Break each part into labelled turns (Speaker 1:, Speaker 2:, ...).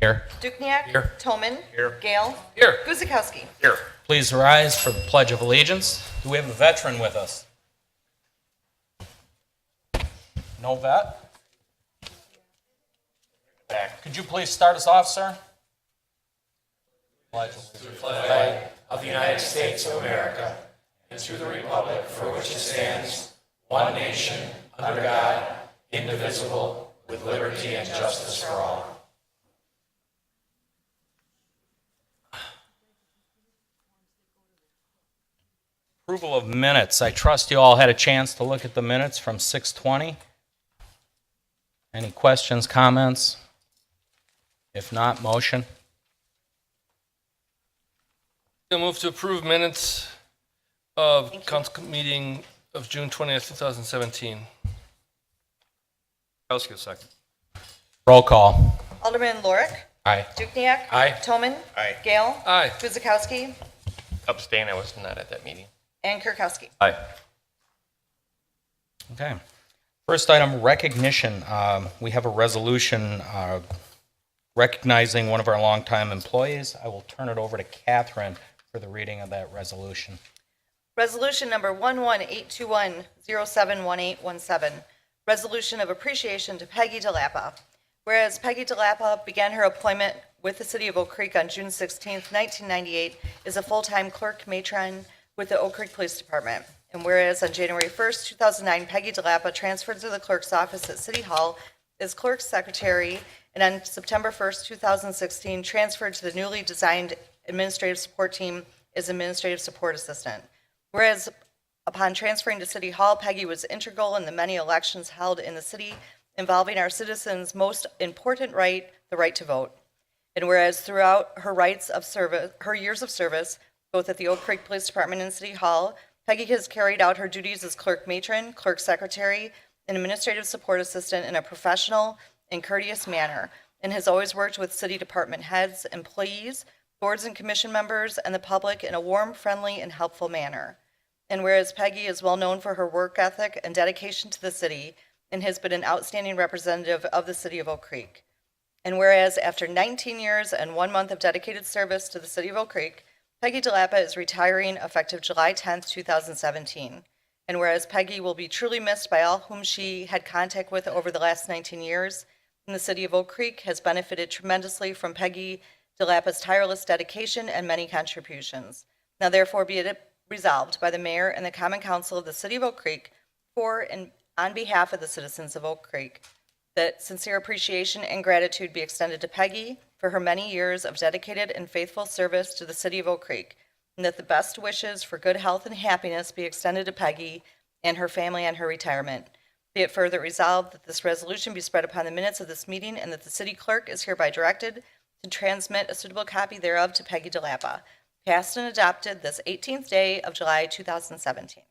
Speaker 1: Here.
Speaker 2: Dukniak.
Speaker 1: Here.
Speaker 2: Toman.
Speaker 1: Here.
Speaker 2: Gale.
Speaker 1: Here.
Speaker 2: Guzekowski.
Speaker 1: Here. Please rise for the Pledge of Allegiance. Do we have a veteran with us? No vet? Back. Could you please start us off, sir? Pledge allegiance. Approval of minutes. I trust you all had a chance to look at the minutes from 6:20. Any questions, comments? If not, motion.
Speaker 3: I move to approve minutes of council meeting of June 20th, 2017.
Speaker 4: Kukowski, second.
Speaker 1: Roll call.
Speaker 2: Alderman Lorik.
Speaker 1: Aye.
Speaker 2: Dukniak.
Speaker 1: Aye.
Speaker 2: Toman.
Speaker 4: Aye.
Speaker 2: Gale.
Speaker 3: Aye.
Speaker 2: Guzekowski.
Speaker 5: Abstain, I was not at that meeting.
Speaker 2: And Kirkowski.
Speaker 4: Aye.
Speaker 1: Okay. First item, recognition. Um, We have a resolution uh, recognizing one of our longtime employees. I will turn it over to Catherine for the reading of that resolution.
Speaker 2: Resolution number 11821071817, resolution of appreciation to Peggy DeLappa. Whereas Peggy DeLappa began her employment with the city of Oak Creek on June 16, 1998, as a full-time clerk matron with the Oak Creek Police Department. And whereas on January 1, 2009, Peggy DeLappa transferred to the clerk's office at City Hall as clerk's secretary, and on September 1st, 2016, transferred to the newly designed administrative support team as administrative support assistant. Whereas upon transferring to City Hall, Peggy was integral in the many elections held in the city involving our citizens' most important right, the right to vote. And whereas throughout her rights of service, her years of service, both at the Oak Creek Police Department and City Hall, Peggy has carried out her duties as clerk matron, clerk secretary, and administrative support assistant in a professional and courteous manner, and has always worked with city department heads, employees, boards and commission members, and the public in a warm, friendly, and helpful manner. And whereas Peggy is well known for her work ethic and dedication to the city, and has been an outstanding representative of the city of Oak Creek. And whereas after 19 years and one month of dedicated service to the city of Oak Creek, Peggy DeLappa is retiring effective July 10, 2017. And whereas Peggy will be truly missed by all whom she had contact with over the last 19 years, and the city of Oak Creek has benefited tremendously from Peggy DeLappa's tireless dedication and many contributions. Now therefore be it resolved by the mayor and the common council of the city of Oak Creek for and on behalf of the citizens of Oak Creek that sincere appreciation and gratitude be extended to Peggy for her many years of dedicated and faithful service to the city of Oak Creek, and that the best wishes for good health and happiness be extended to Peggy and her family on her retirement. Be it further resolved that this resolution be spread upon the minutes of this meeting and that the city clerk is hereby directed to transmit a suitable copy thereof to Peggy DeLappa, passed and adopted this 18th day of July 2017.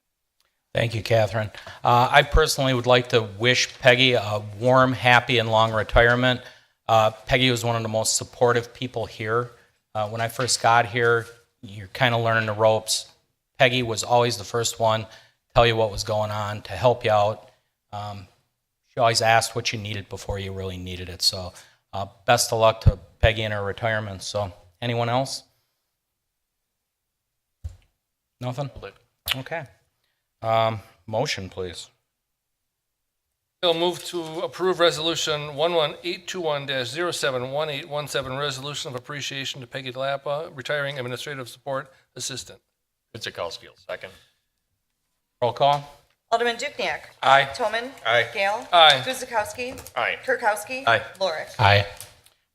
Speaker 1: Thank you, Catherine. Uh, I personally would like to wish Peggy a warm, happy, and long retirement. Uh, Peggy was one of the most supportive people here. Uh, when I first got here, you're kind of learning the ropes. Peggy was always the first one to tell you what was going on, to help you out. Um, she always asked what you needed before you really needed it. So, uh, best of luck to Peggy in her retirement. So, anyone else? Nothing? Okay. Um, motion, please.
Speaker 3: Bill, move to approve Resolution 11821-071817, resolution of appreciation to Peggy Delapa, retiring administrative support assistant.
Speaker 4: Kukowski, second.
Speaker 1: Roll call.
Speaker 2: Alderman Dukniak.
Speaker 1: Aye.
Speaker 2: Toman.
Speaker 4: Aye.
Speaker 2: Gale.
Speaker 3: Aye.
Speaker 2: Guzekowski.
Speaker 4: Aye.
Speaker 2: Kirkowski.
Speaker 4: Aye.
Speaker 2: Lorik.
Speaker 1: Aye.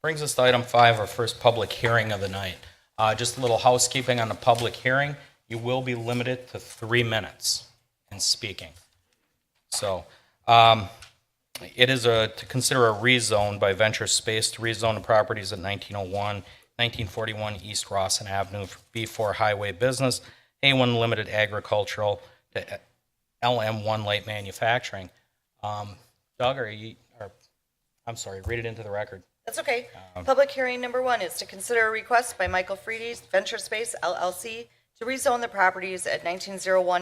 Speaker 1: Brings us to item five, our first public hearing of the night. Uh, just a little housekeeping on the public hearing. You will be limited to three minutes in speaking. So, um, it is a, to consider a rezone by Venture Space to rezone the properties at 1901, 1941 East Rossin Avenue for B4 Highway Business, A1 Limited Agricultural, to LM1 Light Manufacturing. Um, Doug, are you, or I'm sorry, read it into the record.
Speaker 2: That's okay.
Speaker 4: Um,
Speaker 2: Public hearing number one is to consider a request by Michael Freedy's Venture Space LLC to rezone the properties at 1901